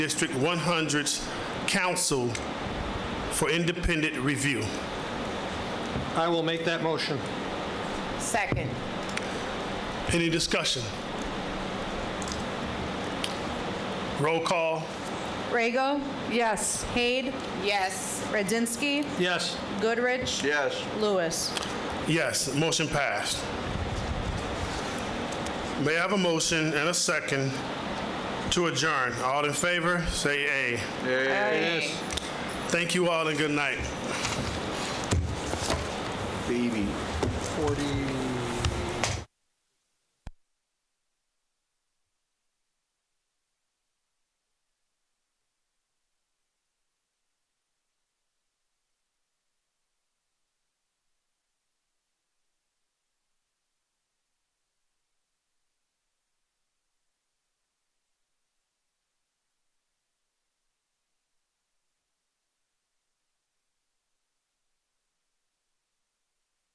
District 100's Council for independent review. I will make that motion. Second. Any discussion? Roll call, Rego? Yes. Haid? Yes. Radzinski? Yes, Goodrich? Yes. Lewis? yes, motion passed. May I have a motion and a second to adjourn? All in favor, say aye. yes. Thank you all and good night. Baby. 40.